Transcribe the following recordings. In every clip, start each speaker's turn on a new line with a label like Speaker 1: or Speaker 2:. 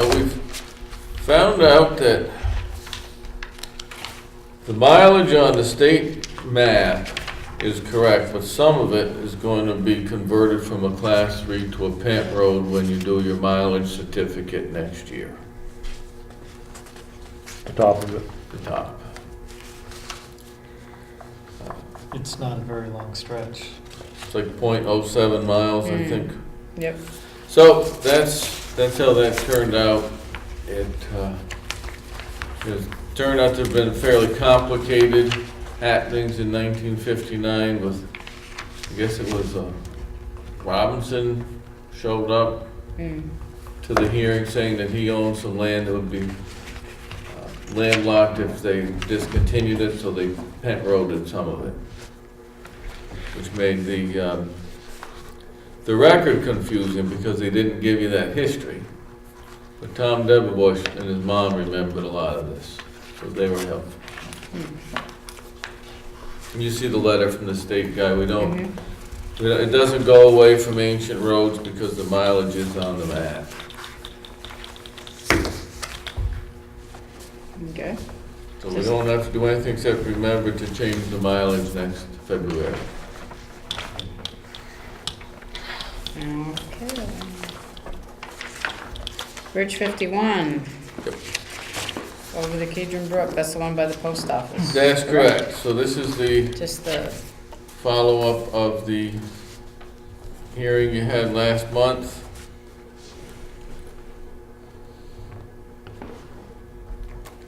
Speaker 1: Now, We've found out that the mileage on the state map is correct, but some of it is going to be converted from a class three to a pant road when you do your mileage certificate next year,
Speaker 2: the top of it.
Speaker 1: the top.
Speaker 3: It's not a very long stretch.
Speaker 1: It's like 0.07 miles, I
Speaker 4: Mm.
Speaker 1: think.
Speaker 4: Yep.
Speaker 1: So that's, that's how that turned out. It, uh, it turned out to have been fairly complicated happenings in nineteen fifty-nine with, I guess it was, uh, Robinson showed up
Speaker 4: Mm.
Speaker 1: to the hearing saying that he owned some land that would be uh, landlocked if they discontinued it, so they pent roaded some of it. Which made the, um, the record confusing because they didn't give you that history. But Tom Deverbush and his mom remembered a lot of this, so they were helpful. And you see the letter from the state guy, we don't,
Speaker 4: Mhm.
Speaker 1: you know, It doesn't go away from ancient roads because the mileage is on the map.
Speaker 4: Okay.
Speaker 1: So we don't have to do anything except remember to change the mileage next February.
Speaker 4: Okay. Bridge fifty-one. Over the Kedron Brook, that's the one by the post office.
Speaker 1: That's correct. So this is the
Speaker 4: Just the,
Speaker 1: follow-up of the hearing you had last month.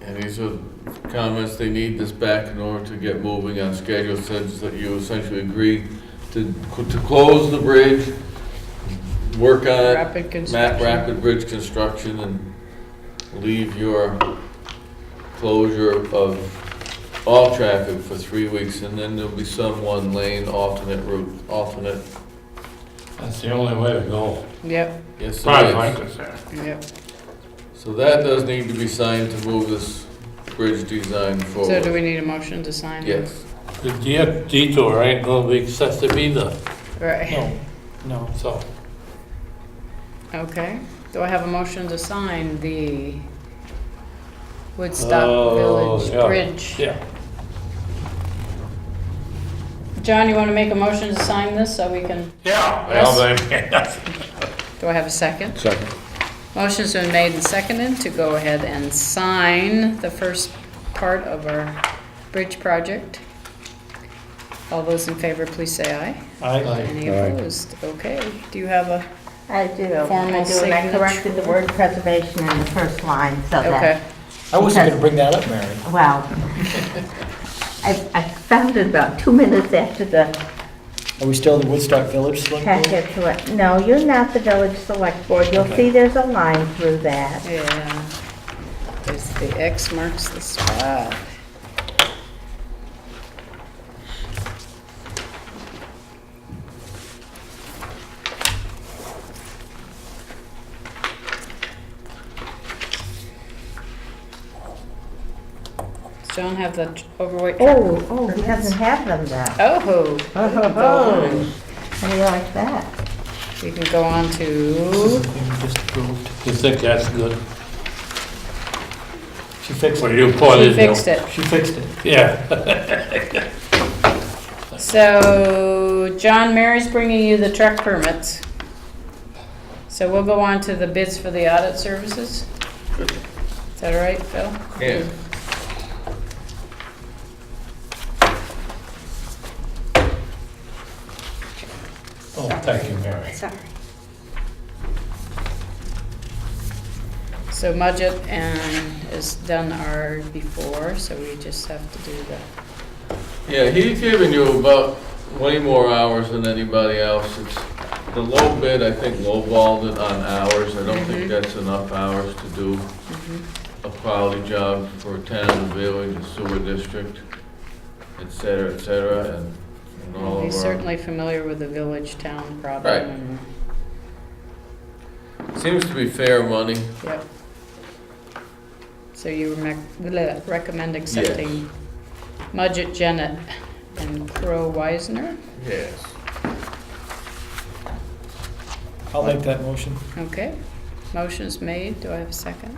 Speaker 1: And these are comments, they need this back in order to get moving on schedule, since that you essentially agree to, to close the bridge, work on it,
Speaker 4: rapid
Speaker 1: Map
Speaker 4: construction.
Speaker 1: Rapid Bridge Construction and leave your closure of all traffic for three weeks, and then there'll be some one lane alternate route, alternate,
Speaker 5: That's the only way to go.
Speaker 4: Yep,
Speaker 1: yes,
Speaker 5: Probably
Speaker 1: it
Speaker 5: like
Speaker 1: is.
Speaker 5: this there.
Speaker 4: yep.
Speaker 1: So that does need to be signed to move this bridge design
Speaker 4: So do
Speaker 1: forward.
Speaker 4: we need a motion to sign?
Speaker 1: Yes,
Speaker 5: The de- detour ain't gonna be excessive either,
Speaker 4: Right,
Speaker 3: No, no.
Speaker 5: so.
Speaker 4: okay. Do I have a motion to sign the Woodstock
Speaker 5: Oh,
Speaker 4: Village
Speaker 5: yeah.
Speaker 4: Bridge?
Speaker 5: Yeah.
Speaker 4: John, you want to make a motion to sign this so we can,
Speaker 5: Yeah.
Speaker 4: Well,
Speaker 5: Yes.
Speaker 4: do I have a second?
Speaker 2: Second.
Speaker 4: Motion's been made and seconded to go ahead and sign the first part of our bridge project. All those in favor, please say aye.
Speaker 3: I,
Speaker 4: Any
Speaker 2: Aye.
Speaker 4: opposed? Okay, do you have a,
Speaker 6: I do,
Speaker 4: Formal
Speaker 6: I do, and I
Speaker 4: signature.
Speaker 6: corrected the word preservation in the first line, so
Speaker 4: okay.
Speaker 6: that,
Speaker 3: I wasn't gonna bring that up, Mary.
Speaker 6: well, I, I found it about two minutes after the
Speaker 3: Are we still in the Woodstock Village Select Board?
Speaker 6: packet to it. No, you're not the village select board, you'll see there's a line through that.
Speaker 4: Yeah. There's the X marks the spot. Does John have the tr- overweight truck?
Speaker 6: Oh, oh, he doesn't have them though.
Speaker 4: Oh.
Speaker 6: Oh, ho, ho. How do you like that?
Speaker 4: We can go on
Speaker 3: This is
Speaker 4: to,
Speaker 3: the thing we just approved.
Speaker 5: You think that's good?
Speaker 3: She fixed
Speaker 5: Well,
Speaker 3: it.
Speaker 5: you put
Speaker 4: she
Speaker 5: it.
Speaker 4: fixed it.
Speaker 3: She fixed it.
Speaker 5: Yeah.
Speaker 4: So, John Mary's bringing you the truck permits. So we'll go on to the bids for the audit services. Is that all right, Phil?
Speaker 1: yeah.
Speaker 5: Oh, thank you, Mary.
Speaker 4: Sorry. So Mudget and has done our before, so we just have to do the,
Speaker 1: Yeah, he's giving you about way more hours than anybody else. It's the low bid, I think, lowballed it on hours. I don't
Speaker 4: Mhm.
Speaker 1: think that's enough hours to do a quality job for a town, a village, a sewer district, et cetera, et cetera, and and all
Speaker 4: he's
Speaker 1: of our.
Speaker 4: certainly familiar with the village town
Speaker 1: Right.
Speaker 4: problem. and-
Speaker 1: Seems to be fair money.
Speaker 4: Yep. So you remec- bleh, recommend accepting Mudgett Jennett and Crow Wisner?
Speaker 1: Yes.
Speaker 3: I'll make that motion.
Speaker 4: Okay. Motion is made. Do I have a second?